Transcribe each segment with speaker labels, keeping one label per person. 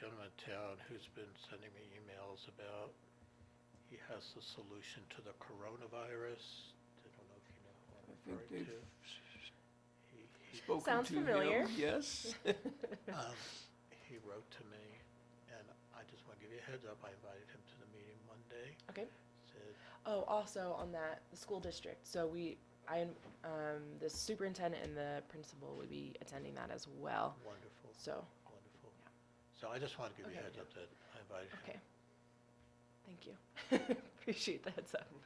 Speaker 1: the town who's been sending me emails about, he has the solution to the coronavirus. I don't know if you know what I'm
Speaker 2: I think
Speaker 1: referring
Speaker 2: they've
Speaker 1: to. He- he-
Speaker 2: spoken to him.
Speaker 3: Sounds familiar.
Speaker 2: Yes.
Speaker 1: um, He wrote to me, and I just want to give you a heads up, I invited him to the meeting Monday,
Speaker 3: Okay.
Speaker 1: said,
Speaker 3: Oh, also on that, the school district, so we, I, um, the superintendent and the principal would be attending that as well,
Speaker 1: wonderful,
Speaker 3: so,
Speaker 1: wonderful. So I just want to give you a
Speaker 3: Okay.
Speaker 1: heads up that I invited him.
Speaker 3: okay. Thank you. Appreciate the heads up.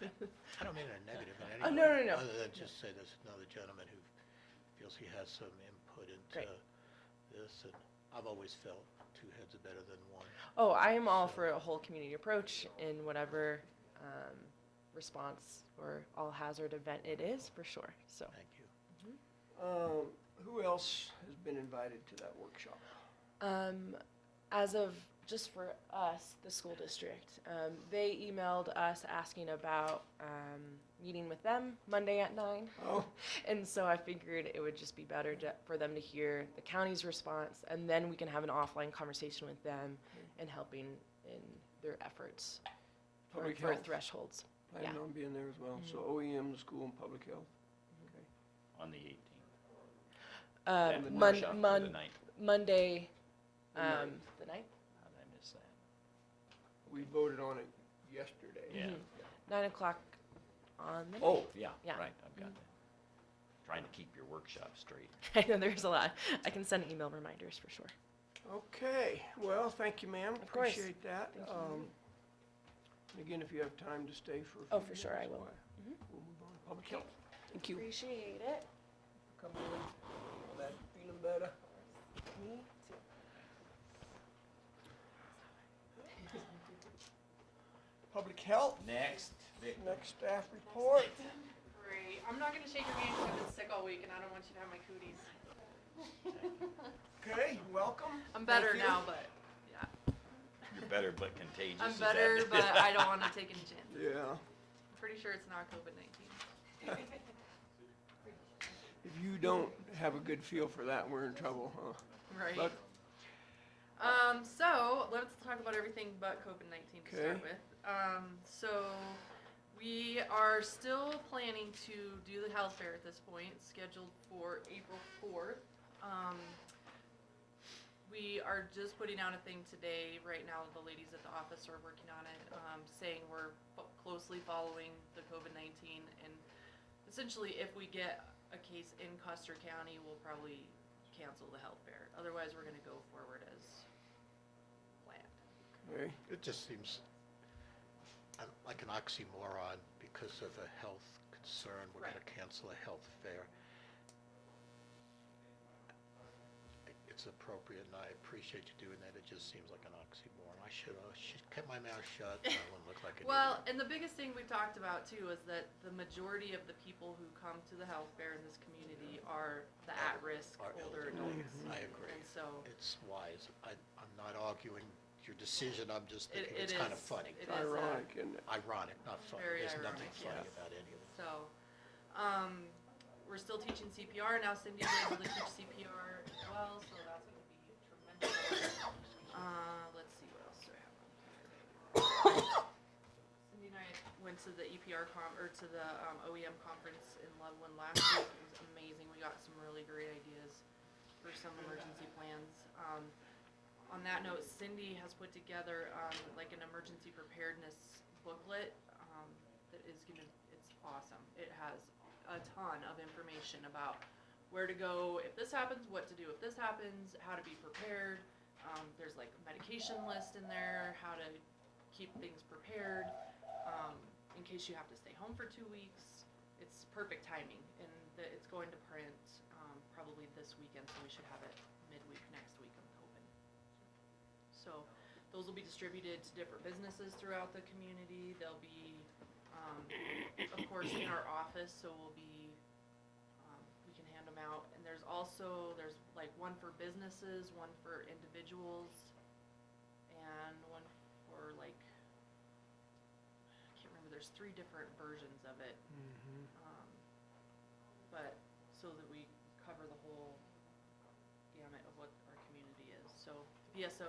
Speaker 1: I don't mean it in a negative in any
Speaker 3: Oh,
Speaker 1: way.
Speaker 3: no, no, no.
Speaker 1: Other than just say there's another gentleman who feels he has some input into
Speaker 3: Great.
Speaker 1: this, and I've always felt two heads are better than one.
Speaker 3: Oh, I am all for a whole community approach in whatever, um, response or all hazard event it is, for sure, so.
Speaker 1: Thank you.
Speaker 2: Um, who else has been invited to that workshop?
Speaker 3: Um, as of just for us, the school district, um, they emailed us asking about um, meeting with them Monday at nine.
Speaker 2: Oh,
Speaker 3: And so I figured it would just be better to, for them to hear the county's response, and then we can have an offline conversation with them and helping in their efforts for,
Speaker 2: public
Speaker 3: for
Speaker 2: health,
Speaker 3: thresholds.
Speaker 2: planning
Speaker 3: yeah. Mm-hmm.
Speaker 2: on being there as well, so OEM, the school and public health. Okay.
Speaker 4: on the 18th.
Speaker 3: Uh,
Speaker 4: That
Speaker 3: mon-
Speaker 4: workshop for
Speaker 3: mon-
Speaker 4: The ninth.
Speaker 3: Monday,
Speaker 2: The
Speaker 3: um, the ninth,
Speaker 4: How did I miss that?
Speaker 2: We voted on it yesterday.
Speaker 4: Yeah.
Speaker 3: Mm-hmm. nine o'clock on the.
Speaker 4: Oh, yeah,
Speaker 3: Yeah.
Speaker 4: right, I've got that. Trying to keep your workshop straight.
Speaker 3: I know there's a lot. I can send email reminders for sure.
Speaker 2: Okay, well, thank you, ma'am.
Speaker 3: Of course.
Speaker 2: Appreciate that.
Speaker 3: Thank you.
Speaker 2: Um, and Again, if you have time to stay for a few
Speaker 3: Oh, for sure,
Speaker 2: minutes,
Speaker 3: I will. Mm-hmm.
Speaker 2: why- We'll move on. Public
Speaker 3: Okay.
Speaker 2: health. Thank you.
Speaker 3: Appreciate it.
Speaker 2: Come in. Glad you're feeling better.
Speaker 3: Me too.
Speaker 2: Public health,
Speaker 4: Next, Vic.
Speaker 2: next staff report.
Speaker 5: Great. I'm not gonna shake your hand because I've been sick all week and I don't want you to have my cooties.
Speaker 2: Okay, welcome. Thank
Speaker 5: I'm better
Speaker 2: you.
Speaker 5: now, but
Speaker 4: You're better but contagious.
Speaker 5: I'm
Speaker 4: is that-
Speaker 5: better, but I don't want to take any chances.
Speaker 2: Yeah.
Speaker 5: I'm pretty sure it's not COVID-19.
Speaker 2: If you don't have a good feel for that, we're in trouble, huh?
Speaker 5: Right.
Speaker 2: But
Speaker 5: Um, so let's talk about everything but COVID nineteen to
Speaker 2: Okay.
Speaker 5: start with. Um, so we are still planning to do the health fair at this point, scheduled for April fourth. Um, we are just putting out a thing today. Right now, the ladies at the office are working on it, um, saying we're fo- closely following the COVID nineteen and essentially if we get a case in Custer County, we'll probably cancel the health fair. Otherwise, we're gonna go forward as planned.
Speaker 2: okay,
Speaker 1: It just seems uh, like an oxymoron because of a health concern, we're gonna cancel a health fair. It's appropriate and I appreciate you doing that, it just seems like an oxymoron. I should, I should kept my mouth shut, and I wouldn't look like an
Speaker 5: Well,
Speaker 1: idiot.
Speaker 5: and the biggest thing we've talked about too is that the majority of the people who come to the health fair in this community are the at-risk
Speaker 1: Are
Speaker 5: older
Speaker 1: elderly.
Speaker 5: adults.
Speaker 1: I agree.
Speaker 5: And so
Speaker 1: It's wise, I, I'm not arguing your decision, I'm just thinking
Speaker 5: it, it
Speaker 1: it's
Speaker 5: is.
Speaker 1: kind of funny.
Speaker 5: it is, uh,
Speaker 2: ironic, isn't it?
Speaker 1: Ironic, not funny,
Speaker 5: Very
Speaker 1: there's nothing
Speaker 5: ironic,
Speaker 1: funny
Speaker 5: yes.
Speaker 1: about any of it.
Speaker 5: So, um, we're still teaching CPR now. Cindy was able to teach CPR as well, so that's gonna be tremendous. Uh, let's see what else do I have on here. Cindy and I went to the EPR com, or to the, um, OEM conference in Loveland last week. It was amazing. We got some really great ideas for some emergency plans. Um, on that note, Cindy has put together, um, like an emergency preparedness booklet, um, that is gonna, it's awesome. It has a ton of information about where to go if this happens, what to do if this happens, how to be prepared. Um, there's like a medication list in there, how to keep things prepared, um, in case you have to stay home for two weeks. It's perfect timing and the, it's going to print, um, probably this weekend, so we should have it midweek next week, I'm hoping. So, those will be distributed to different businesses throughout the community. They'll be, um, of course, in our office, so we'll be, um, we can hand them out. And there's also, there's like one for businesses, one for individuals, and one for like, I can't remember, there's three different versions of it.
Speaker 2: Mhm.
Speaker 5: Um, but, so that we cover the whole gamut of what our community is. So, VSO